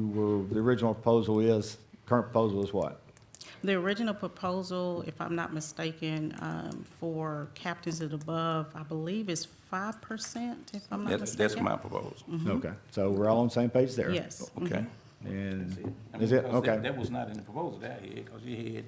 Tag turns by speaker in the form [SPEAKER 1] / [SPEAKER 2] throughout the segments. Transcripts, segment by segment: [SPEAKER 1] well, the original proposal is, current proposal is what?
[SPEAKER 2] The original proposal, if I'm not mistaken, um, for captains and above, I believe is five percent, if I'm not Mm-hmm.
[SPEAKER 3] That's,
[SPEAKER 2] mistaken.
[SPEAKER 3] that's my proposal,
[SPEAKER 1] Okay, so we're all on the same page there?
[SPEAKER 2] Yes.
[SPEAKER 3] okay?
[SPEAKER 1] And,
[SPEAKER 3] I mean,
[SPEAKER 1] is Mm-hmm. it,
[SPEAKER 3] 'cause that-
[SPEAKER 1] okay,
[SPEAKER 3] That was not in the proposal that I had, because you had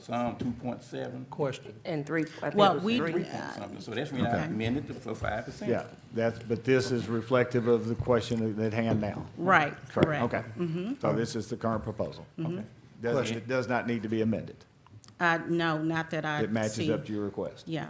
[SPEAKER 3] some two point seven.
[SPEAKER 4] Question.
[SPEAKER 5] And three, I think
[SPEAKER 2] Well,
[SPEAKER 5] it was
[SPEAKER 2] we-
[SPEAKER 5] three.
[SPEAKER 3] Something, so that's when I amended it for five percent.
[SPEAKER 1] yeah, that's, but this is reflective of the question at hand now.
[SPEAKER 2] Right, correct. Mm-hmm.
[SPEAKER 1] Okay. So this is the current proposal. Okay. Does, it does not need to be amended.
[SPEAKER 2] Uh, no, not that I see.
[SPEAKER 1] It matches up to your request.
[SPEAKER 2] Yeah,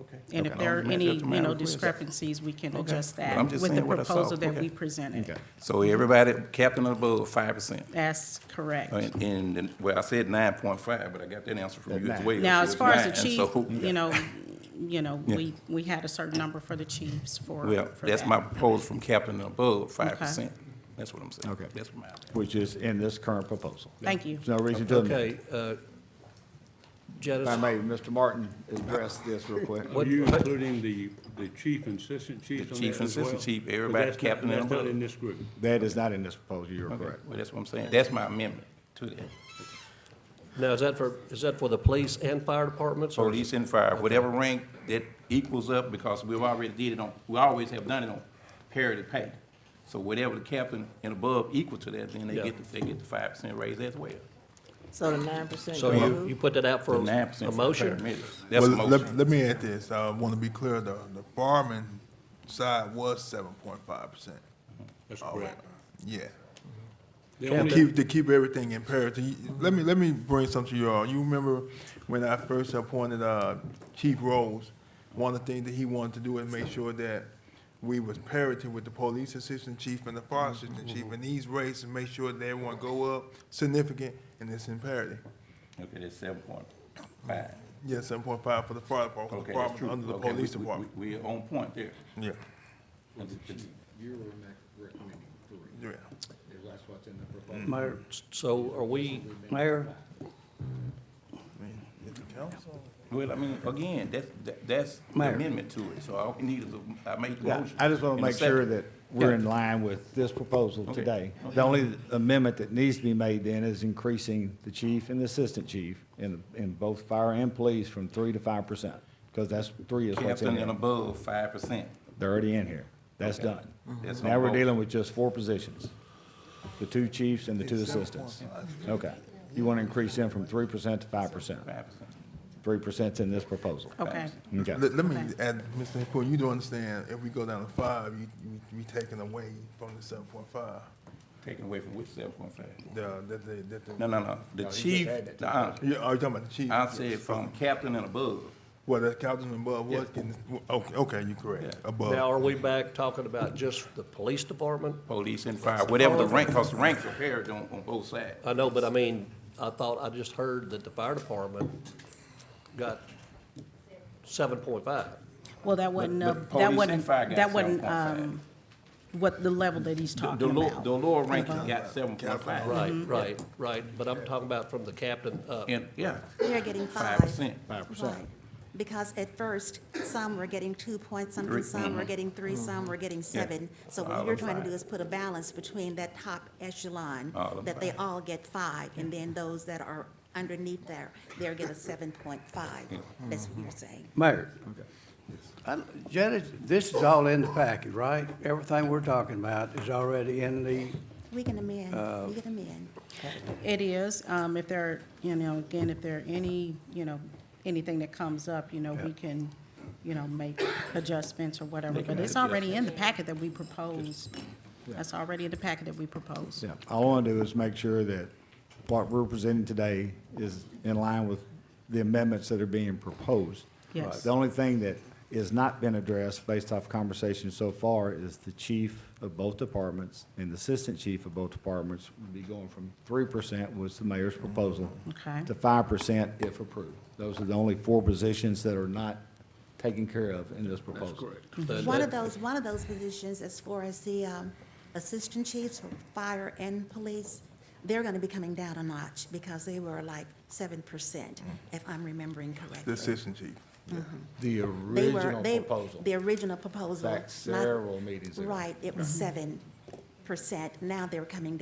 [SPEAKER 3] Okay.
[SPEAKER 2] and if
[SPEAKER 1] Okay.
[SPEAKER 2] there are
[SPEAKER 3] Matches up
[SPEAKER 2] any,
[SPEAKER 3] to
[SPEAKER 2] you
[SPEAKER 3] my
[SPEAKER 2] know,
[SPEAKER 3] request.
[SPEAKER 2] discrepancies, we can
[SPEAKER 3] Okay.
[SPEAKER 2] adjust
[SPEAKER 3] But
[SPEAKER 2] that
[SPEAKER 3] I'm just
[SPEAKER 2] with the
[SPEAKER 3] saying what I saw.
[SPEAKER 2] proposal that
[SPEAKER 3] Okay.
[SPEAKER 2] we presented.
[SPEAKER 1] Okay.
[SPEAKER 3] So everybody, captain above, five percent.
[SPEAKER 2] That's correct.
[SPEAKER 3] And, and, then- well, I said nine point five, but I got that answer from you as
[SPEAKER 1] Nine.
[SPEAKER 3] well.
[SPEAKER 2] Now,
[SPEAKER 3] so
[SPEAKER 2] as
[SPEAKER 3] it's
[SPEAKER 2] far as the
[SPEAKER 3] nine,
[SPEAKER 2] chief,
[SPEAKER 3] so-
[SPEAKER 2] you know, you know,
[SPEAKER 3] Yeah.
[SPEAKER 2] we, we had a certain number for the chiefs for.
[SPEAKER 3] Well,
[SPEAKER 2] for
[SPEAKER 3] that's
[SPEAKER 2] that.
[SPEAKER 3] my proposal from captain above, five percent. That's what I'm saying.
[SPEAKER 1] Okay.
[SPEAKER 3] That's my.
[SPEAKER 1] Which is in this current proposal.
[SPEAKER 2] Thank you.
[SPEAKER 1] There's no reason to amend.
[SPEAKER 4] Okay, uh, Jetta,
[SPEAKER 1] If I may, Mr. Martin, address this real quick.
[SPEAKER 4] What-
[SPEAKER 6] Are you including the, the chief and assistant chief
[SPEAKER 3] The
[SPEAKER 6] on
[SPEAKER 3] chief
[SPEAKER 6] that as well?
[SPEAKER 3] and assistant chief,
[SPEAKER 6] But
[SPEAKER 3] everybody,
[SPEAKER 6] that's not-
[SPEAKER 3] captain and
[SPEAKER 6] That's not
[SPEAKER 3] above.
[SPEAKER 6] in this group.
[SPEAKER 1] That is not in this proposal, you're correct.
[SPEAKER 3] Well, that's what I'm saying. That's my amendment to that.
[SPEAKER 4] now, is that for, is that for the police and fire departments? or-
[SPEAKER 3] Police and fire, whatever rank that equals up, because we've already did it on, we always have done it on parity pay. So whatever the captain and above equal to that, then they
[SPEAKER 4] Yeah.
[SPEAKER 3] get, the- they get the five percent raise as well.
[SPEAKER 5] So the nine percent
[SPEAKER 4] So you, you put that out for
[SPEAKER 3] The nine
[SPEAKER 4] a
[SPEAKER 3] percent for the
[SPEAKER 4] motion?
[SPEAKER 3] paramedics. That's a
[SPEAKER 7] Well, let-
[SPEAKER 3] motion.
[SPEAKER 7] Let me add this, I want to be clear, the, the fireman side was seven point five percent,
[SPEAKER 6] That's correct.
[SPEAKER 7] yeah.
[SPEAKER 6] The
[SPEAKER 7] To
[SPEAKER 6] only-
[SPEAKER 7] keep, to keep everything in parity, You- let me, let me bring something to you all, you remember when I first appointed, uh, Chief Rose, one of the things that he wanted to do is make sure that we was parity with the police assistant chief and the fire assistant chief,
[SPEAKER 3] Mm-hmm.
[SPEAKER 7] and these rates, and make sure that everyone go up significant, and it's in parity.
[SPEAKER 3] Okay, that's seven point five.
[SPEAKER 7] Yeah, seven point five for the fire department,
[SPEAKER 3] Okay,
[SPEAKER 7] the
[SPEAKER 3] that's
[SPEAKER 7] department
[SPEAKER 3] true.
[SPEAKER 7] under the
[SPEAKER 3] Okay, we-
[SPEAKER 7] police
[SPEAKER 3] we- we-
[SPEAKER 7] department,
[SPEAKER 3] We're on point there.
[SPEAKER 7] yeah,
[SPEAKER 8] You're recommending three,
[SPEAKER 7] yeah.
[SPEAKER 8] because that's what's in the proposal.
[SPEAKER 4] Mayor, so are we,
[SPEAKER 9] Mayor,
[SPEAKER 3] Well, I mean, again, that's, that- that's the
[SPEAKER 9] Mayor.
[SPEAKER 3] amendment to it, so all we need is, a- I made the
[SPEAKER 1] Yeah,
[SPEAKER 3] motion.
[SPEAKER 1] I just want
[SPEAKER 3] and
[SPEAKER 1] to
[SPEAKER 3] a
[SPEAKER 1] make sure
[SPEAKER 3] second.
[SPEAKER 1] that we're in line with this proposal
[SPEAKER 3] Okay.
[SPEAKER 1] today. The only amendment that needs to be made then is increasing the chief and the assistant chief in, in both fire and police from three to five percent, because that's, three is what's in
[SPEAKER 3] Captain and
[SPEAKER 1] there.
[SPEAKER 3] above, five percent.
[SPEAKER 1] They're already in here. That's done.
[SPEAKER 3] Mm-hmm. That's
[SPEAKER 1] Now
[SPEAKER 3] on
[SPEAKER 1] we're
[SPEAKER 3] both.
[SPEAKER 1] dealing with just four positions, the two chiefs and the two assistants. Okay. You want to increase them from three percent to five percent.
[SPEAKER 3] Five percent.
[SPEAKER 1] Three percent's in this proposal.
[SPEAKER 2] Okay.
[SPEAKER 1] Okay.
[SPEAKER 7] Let, let me
[SPEAKER 2] Okay.
[SPEAKER 7] add, Mr. Hickman, you do understand, if we go down to five, you, you, we taking away from the seven point five,
[SPEAKER 3] Taken away from which seven point five?
[SPEAKER 7] the, that the, that the.
[SPEAKER 3] No, no, no, the chief, uh-uh,
[SPEAKER 7] You, are you talking about the chief?
[SPEAKER 3] I said from captain and above.
[SPEAKER 7] Well, the captain above
[SPEAKER 3] Yeah.
[SPEAKER 7] was getting, okay, okay, you correct,
[SPEAKER 3] Yeah.
[SPEAKER 4] now
[SPEAKER 7] above.
[SPEAKER 4] are we back talking about just the police department?
[SPEAKER 3] Police and fire, whatever the rank, because the ranks are paired on, on both sides.
[SPEAKER 4] I know, but I mean, I thought, I just heard that the fire department got seven point five.
[SPEAKER 2] Well, that wasn't, uh,
[SPEAKER 3] But- but
[SPEAKER 2] that
[SPEAKER 3] police and
[SPEAKER 2] wasn't,
[SPEAKER 3] fire got
[SPEAKER 2] that wasn't,
[SPEAKER 3] 7.5.
[SPEAKER 2] um, what the level that he's
[SPEAKER 3] The- The
[SPEAKER 2] talking
[SPEAKER 3] lower,
[SPEAKER 2] about.
[SPEAKER 3] the lower rank got seven point five.
[SPEAKER 4] Right,
[SPEAKER 9] Mm-hmm.
[SPEAKER 4] right, right, but I'm talking about from the captain up.
[SPEAKER 3] And, yeah,
[SPEAKER 10] They're getting
[SPEAKER 3] Five
[SPEAKER 10] five.
[SPEAKER 3] percent.
[SPEAKER 1] Five percent.
[SPEAKER 10] Right. Because at first, some were getting two point something,
[SPEAKER 3] Three. Mm-hmm.
[SPEAKER 10] some were getting three,
[SPEAKER 1] Mm-hmm.
[SPEAKER 10] some were getting seven. So
[SPEAKER 3] All
[SPEAKER 10] what you're
[SPEAKER 3] of
[SPEAKER 10] trying to do
[SPEAKER 3] five.
[SPEAKER 10] is put a balance between that top echelon,
[SPEAKER 3] All of
[SPEAKER 10] that they
[SPEAKER 3] five.
[SPEAKER 10] all get five, and then those that are underneath there, they'll get a seven point five. That's what you're saying.
[SPEAKER 9] Mayor. I- Jetta, this is all in the package, right? Everything we're talking about is already in the,
[SPEAKER 10] We can amend, we
[SPEAKER 1] Uh,
[SPEAKER 10] can amend.
[SPEAKER 2] It is, um, if there, are you know, again, if there are any, you know, anything that comes up, you know, we can, you know, make adjustments or whatever, but it's already in the packet that we proposed. That's already in the packet that we proposed.
[SPEAKER 1] Yeah, all I want to do is make sure that what we're presenting today is in line with the amendments that are being proposed.
[SPEAKER 2] Yes.
[SPEAKER 1] The only thing that has not been addressed based off conversation so far is the chief of both departments and the assistant chief of both departments would be going from three percent was the mayor's proposal.
[SPEAKER 2] Okay.
[SPEAKER 1] To five percent if approved. Those are the only four positions that are not taken care of in this proposal.
[SPEAKER 4] The-
[SPEAKER 10] One
[SPEAKER 4] the-
[SPEAKER 10] of those, one of those positions, as far as the um, assistant chiefs for fire and police, they're going to be coming down a notch because they were like seven percent,
[SPEAKER 1] Mm.
[SPEAKER 10] if I'm remembering
[SPEAKER 7] The
[SPEAKER 10] correctly.
[SPEAKER 7] assistant chief,
[SPEAKER 1] The
[SPEAKER 10] They were-
[SPEAKER 1] original
[SPEAKER 10] they-
[SPEAKER 1] proposal.
[SPEAKER 10] The original proposal.
[SPEAKER 1] Back
[SPEAKER 10] not-
[SPEAKER 1] several meetings ago. Mm-hmm.
[SPEAKER 10] Right, it was seven percent. Now they're coming